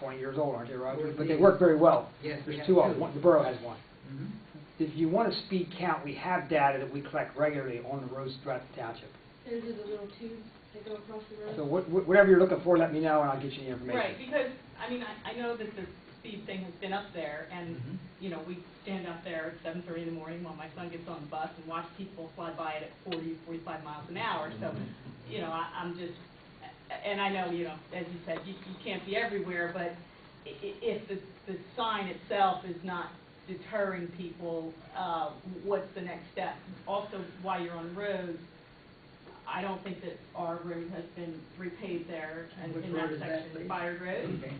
20 years old, aren't they, Roger? Or But they these. work very well. Yes, we There's have two of two. them, One- the borough has one. Mm-hmm. Mhm. If you want a speed count, we have data that we collect regularly on the roads throughout the township. Those are the little tubes that go across the road. So what- what- whatever you're looking for, let me know and I'll get you the Right, information. because, I mean, I, I know that the speed thing has been up there, and, Mhm. you know, we stand out there at seven thirty in the morning while my son gets on the bus and watch people fly by it at 40, 45 miles an hour, so, you know, I, I'm just, a- and I know, you know, as you said, you, you can't be everywhere, but i- i- if the, the sign itself is not deterring people, uh, what's the next step? Also, while you're on roads, I don't think that our road has been repaved there in Which in that road is that, section, please? Byard Mm-hmm. Road. Okay.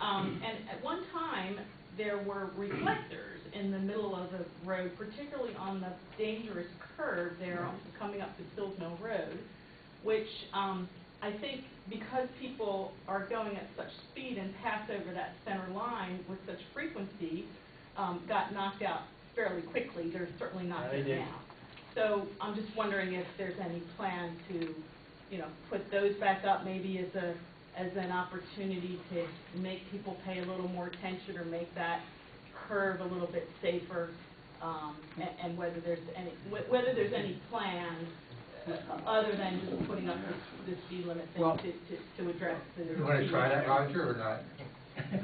Um, and at one time, there were reflectors in the middle of the road, particularly on the dangerous curve there on- coming up to Sills Mill Road, which, um, I think because people are going at such speed and pass over that center line with such frequency, um, got knocked out fairly quickly. They're certainly not Yeah, they there did. now. So I'm just wondering if there's any plan to, you know, put those back up maybe as a, as an opportunity to make people pay a little more attention or make that curve a little bit safer, um, and, and whether there's any, wh- whether there's any plan uh, other than just putting up the, the speed limit thing Well- to, to, to address the. You want to try that, Roger, or not?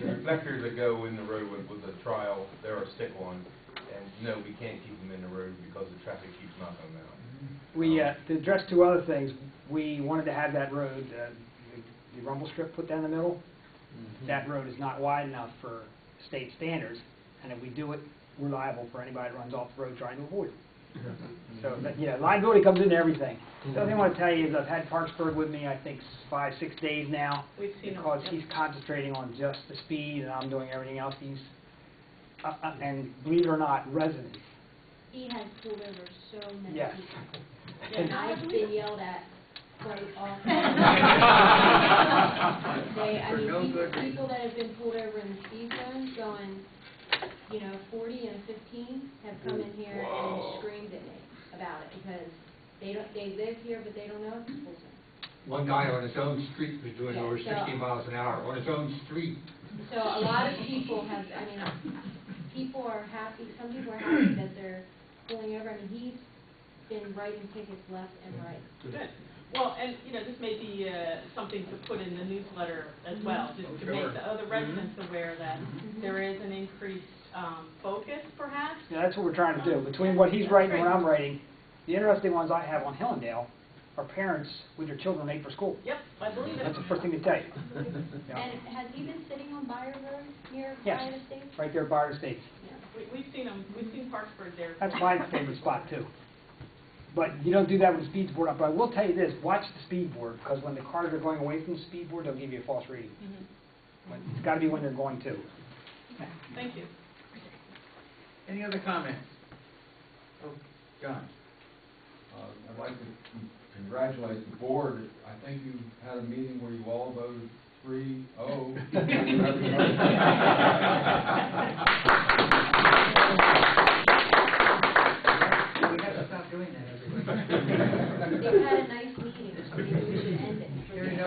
The reflectors that go in the road with, with the trial, they're a stick on, and no, we can't keep them in the road because the traffic keeps knocking them out. Mm-hmm. We, uh, to address two other things, we wanted to have that road, uh, the- the rumble strip put down the middle. Mm-hmm. That road is not wide enough for state standards, and if we do it, we're liable for anybody that runs off the road trying to avoid it. Mm-hmm. So, but, yeah, liability comes into everything. The other thing I want to tell you is I've had Parksburg with me, I think, s- five, six days now, We've seen. them. because Yep. he's concentrating on just the speed, and I'm doing everything else. He's, uh, uh, and believe it or not, residents. He has pulled over so many Yes. people. And And I've been yelled at quite often. They, I For no mean, good people, reason. people that have been pulled over in the speed zone going, you know, forty and fifteen have come in here and screamed at me about it because they don't, they live here, but they don't know it's a school zone. One guy on his own street was doing over Yeah, so- 60 miles an hour, on his own street. So a lot of people have, I mean, people are happy, some people are happy that they're pulling over. I mean, he's been writing tickets left and right. Good. Well, and, you know, this may be uh, something to put in the newsletter as well, just Oh, to make sure. the other residents aware that there is an increased um, focus perhaps. Yeah, that's what we're trying to do. Between what he's writing and what I'm writing, the interesting ones I have on Hillendale are parents with their children late for school. Yep, I believe it. That's the first thing to tell you. Yeah. And has he been sitting on Byron Road near Yes. Byron Estates? Right there, Byron Estates. Yeah. We- We've seen them, we've seen Parksburg there. That's my favorite spot, too. But you don't do that with the speed board, but I will tell you this, watch the speed board, because when the cars are going away from the speed board, they'll give you a false reading. Mhm. When- It's gotta be when they're going to. Thank you. Any other comments? Oh, John? Uh, I'd like to con- congratulate the board. I think you had a meeting where you all voted three oh. We have to stop doing that every week. They've had a nice meeting, so maybe we should end it. There you go.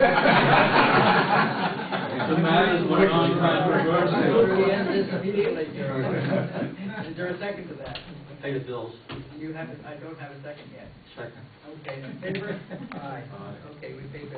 The matters were We'll controversial. be end this immediately, Jerry. Is there a second to that? Pay the bills. You haven't, I don't have a second yet. Second. Okay, in favor? Aye. Aye. Okay, we paid